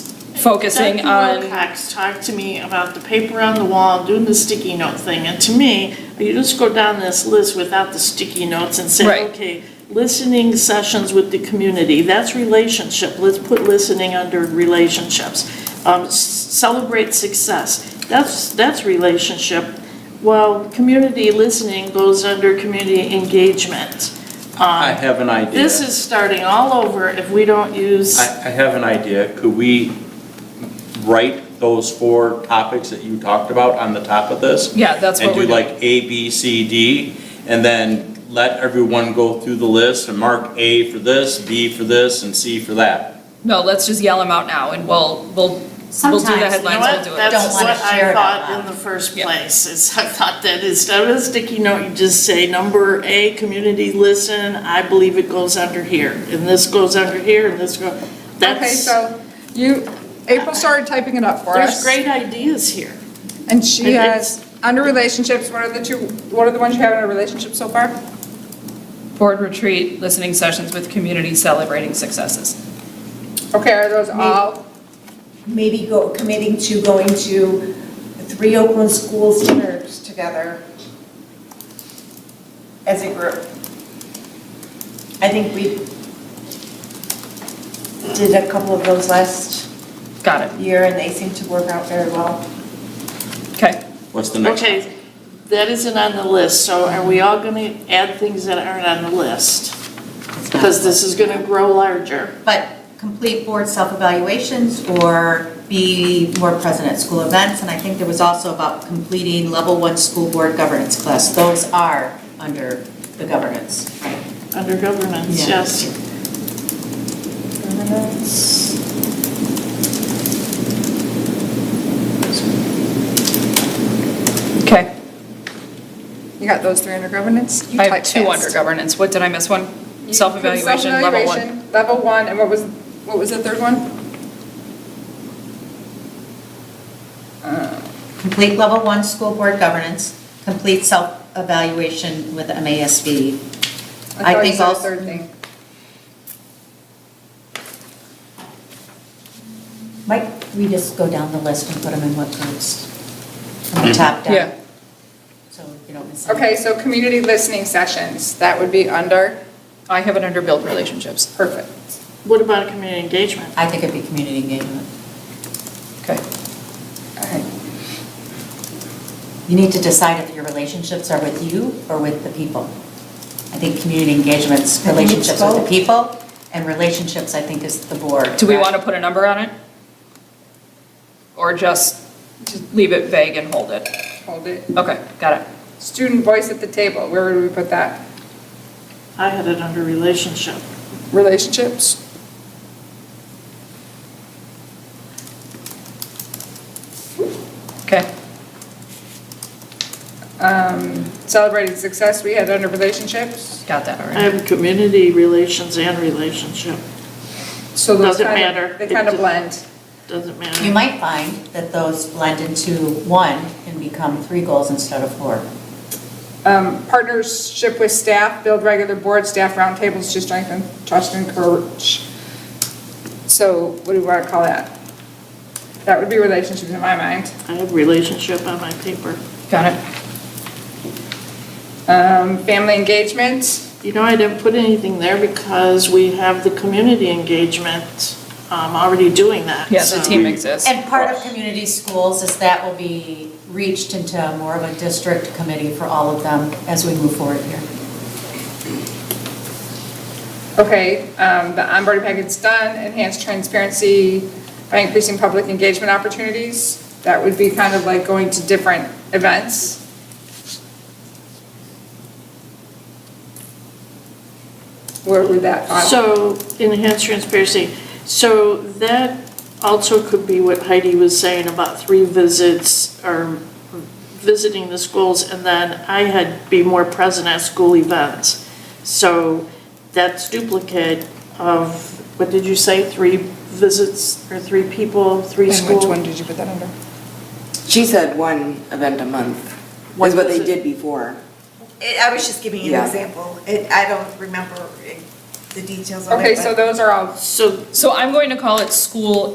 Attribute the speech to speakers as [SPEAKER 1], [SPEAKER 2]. [SPEAKER 1] focusing
[SPEAKER 2] Becky
[SPEAKER 1] on,
[SPEAKER 2] Wilcox talked to me about the paper on the wall, doing the sticky note thing, and to me, you just go down this list without the sticky notes and
[SPEAKER 1] Right.
[SPEAKER 2] say, okay, listening sessions with the community, that's relationship, let's put listening under relationships. Um, s- celebrate success, that's, that's relationship, while community listening goes under community engagement.
[SPEAKER 3] I have an idea.
[SPEAKER 2] This is starting all over if we don't use.
[SPEAKER 3] I, I have an idea. Could we write those four topics that you talked about on the top of this?
[SPEAKER 1] yeah, that's what
[SPEAKER 3] And
[SPEAKER 1] we're
[SPEAKER 3] do
[SPEAKER 1] doing.
[SPEAKER 3] like A, B, C, D, and then let everyone go through the list and mark A for this, B for this, and C for that.
[SPEAKER 1] No, let's just yell them out now and we'll, we'll, we'll do
[SPEAKER 4] Sometimes, you know
[SPEAKER 1] the
[SPEAKER 2] You know
[SPEAKER 1] headlines,
[SPEAKER 2] what?
[SPEAKER 1] we'll do it.
[SPEAKER 2] That's
[SPEAKER 4] Don't wanna
[SPEAKER 2] what
[SPEAKER 4] share
[SPEAKER 2] I
[SPEAKER 4] it out
[SPEAKER 2] thought in
[SPEAKER 4] loud.
[SPEAKER 2] the first
[SPEAKER 1] Yeah.
[SPEAKER 2] place, is I thought that instead of a sticky note, you just say, number A, community listen, I believe it goes under here, and this goes under here, and this go,
[SPEAKER 5] Okay,
[SPEAKER 2] that's,
[SPEAKER 5] so you, April started typing it up for
[SPEAKER 2] there's
[SPEAKER 5] us.
[SPEAKER 2] great ideas here.
[SPEAKER 5] And she
[SPEAKER 2] And it's-
[SPEAKER 5] has, under relationships, what are the two, what are the ones you have in a relationship so far?
[SPEAKER 1] Board retreat, listening sessions with community celebrating successes.
[SPEAKER 5] Okay, are those all?
[SPEAKER 4] Maybe go, committing to going to three Oakland schools dinners together as a group. I think we did a couple of those last
[SPEAKER 1] Got it,
[SPEAKER 4] year and they seem to work out very well.
[SPEAKER 1] okay.
[SPEAKER 3] What's the next?
[SPEAKER 2] Okay, that isn't on the list, so are we all gonna add things that aren't on the list? Because this is gonna grow larger.
[SPEAKER 6] But complete board self-evaluations or be more present at school events. And I think there was also about completing level one school board governance class. Those are under the governance, right?
[SPEAKER 2] Under governance,
[SPEAKER 6] Yeah.
[SPEAKER 2] yes.
[SPEAKER 1] Okay.
[SPEAKER 5] You got those three under governance? You
[SPEAKER 1] I have
[SPEAKER 5] typed
[SPEAKER 1] two
[SPEAKER 5] fast.
[SPEAKER 1] under governance. What, did I miss one?
[SPEAKER 5] You put
[SPEAKER 1] Self-evaluation, level one.
[SPEAKER 5] self-evaluation, Level one, and what was, what was the third one?
[SPEAKER 6] Complete level one school board governance, complete self-evaluation with MASB. I
[SPEAKER 5] thought you
[SPEAKER 6] think
[SPEAKER 5] said the
[SPEAKER 6] also-
[SPEAKER 5] Third thing.
[SPEAKER 6] Might we just go down the list and put them in what groups? From the top down?
[SPEAKER 1] Yeah.
[SPEAKER 6] So you don't miss. anything.
[SPEAKER 5] Okay, so community listening sessions, that would be under,
[SPEAKER 1] I have it under build relationships.
[SPEAKER 5] perfect.
[SPEAKER 2] What about community engagement?
[SPEAKER 6] I think it'd be community engagement.
[SPEAKER 1] Okay.
[SPEAKER 5] All right.
[SPEAKER 6] You need to decide if your relationships are with you or with the people. I think community engagement's
[SPEAKER 4] I think it's
[SPEAKER 6] relationships with the
[SPEAKER 4] both.
[SPEAKER 6] people, and relationships, I think, is the board.
[SPEAKER 1] Do we want to put a number on it? Or just just leave it vague and hold it?
[SPEAKER 5] Hold it.
[SPEAKER 1] Okay, got it.
[SPEAKER 5] Student voice at the table, where would we put that?
[SPEAKER 2] I had it under relationship.
[SPEAKER 5] Relationships?
[SPEAKER 1] Okay.
[SPEAKER 5] Um, Celebrating success we had under relationships?
[SPEAKER 1] Got that
[SPEAKER 2] I
[SPEAKER 1] already.
[SPEAKER 2] have community relations and relationship,
[SPEAKER 5] So those
[SPEAKER 2] Doesn't
[SPEAKER 5] kind of-
[SPEAKER 2] matter.
[SPEAKER 5] They kind of blend.
[SPEAKER 2] doesn't
[SPEAKER 6] You
[SPEAKER 2] matter.
[SPEAKER 6] might find that those blend into one and become three goals instead of four.
[SPEAKER 5] Um, Partnership with staff, build regular board staff roundtables to strengthen trust and courage. So what do we want to call that? That would be relationships in my mind.
[SPEAKER 2] I have relationship on my paper.
[SPEAKER 1] Got it.
[SPEAKER 5] Um, Family engagement,
[SPEAKER 2] You know, I didn't put anything there because we have the community engagement um, already doing that.
[SPEAKER 1] Yeah,
[SPEAKER 2] so-
[SPEAKER 1] the team exists.
[SPEAKER 6] And part of community schools is that will be reached into more of a district committee for all of them as we move forward here.
[SPEAKER 5] okay, um, the onboarding packet's done, enhance transparency by increasing public engagement opportunities. That would be kind of like going to different events. Where would that fall?
[SPEAKER 2] So enhanced transparency. So that also could be what Heidi was saying about three visits or visiting the schools and then I had be more present at school events. So that's duplicate of, what did you say, three visits or three people, three
[SPEAKER 5] And which one
[SPEAKER 2] schools?
[SPEAKER 5] did you put that under?
[SPEAKER 7] She said one event a month,
[SPEAKER 2] One
[SPEAKER 7] is what they
[SPEAKER 2] visit.
[SPEAKER 7] did before.
[SPEAKER 8] It- I was just giving you an
[SPEAKER 7] Yeah.
[SPEAKER 8] example. It, I don't remember eh, the details of it.
[SPEAKER 5] Okay,
[SPEAKER 8] but-
[SPEAKER 5] so those are all
[SPEAKER 2] So
[SPEAKER 1] So I'm going to call it school